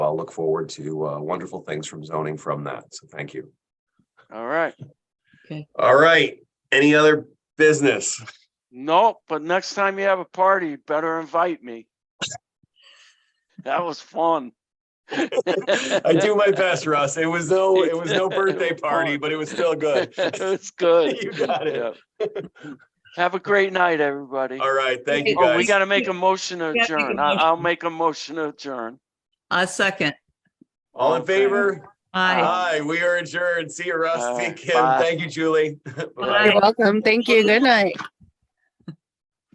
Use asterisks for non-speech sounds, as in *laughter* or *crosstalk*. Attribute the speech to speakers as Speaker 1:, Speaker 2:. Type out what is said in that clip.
Speaker 1: I'll look forward to uh, wonderful things from zoning from that. So thank you.
Speaker 2: All right.
Speaker 1: All right. Any other business?
Speaker 2: No, but next time you have a party, better invite me. That was fun.
Speaker 1: I do my
Speaker 2: *laughs*
Speaker 1: best, Russ. It was no, it was no birthday party, but it was still
Speaker 2: *laughs*
Speaker 1: good.
Speaker 2: It's good.
Speaker 1: *laughs* You got it.
Speaker 2: Yeah. Have a great night, everybody.
Speaker 1: All right. Thank you
Speaker 2: Oh, we
Speaker 1: guys.
Speaker 2: gotta make a motion to
Speaker 3: We gotta make a
Speaker 2: adjourn. I- I'll make a motion to adjourn.
Speaker 3: A second.
Speaker 1: All in favor?
Speaker 3: Aye.
Speaker 1: Aye, we are adjourned. See you, Russ.
Speaker 2: All
Speaker 1: See you,
Speaker 2: right,
Speaker 1: Kim.
Speaker 2: bye.
Speaker 1: Thank you, Julie. *laughs* Bye.
Speaker 3: Bye.
Speaker 4: You're welcome. Thank you. Good night.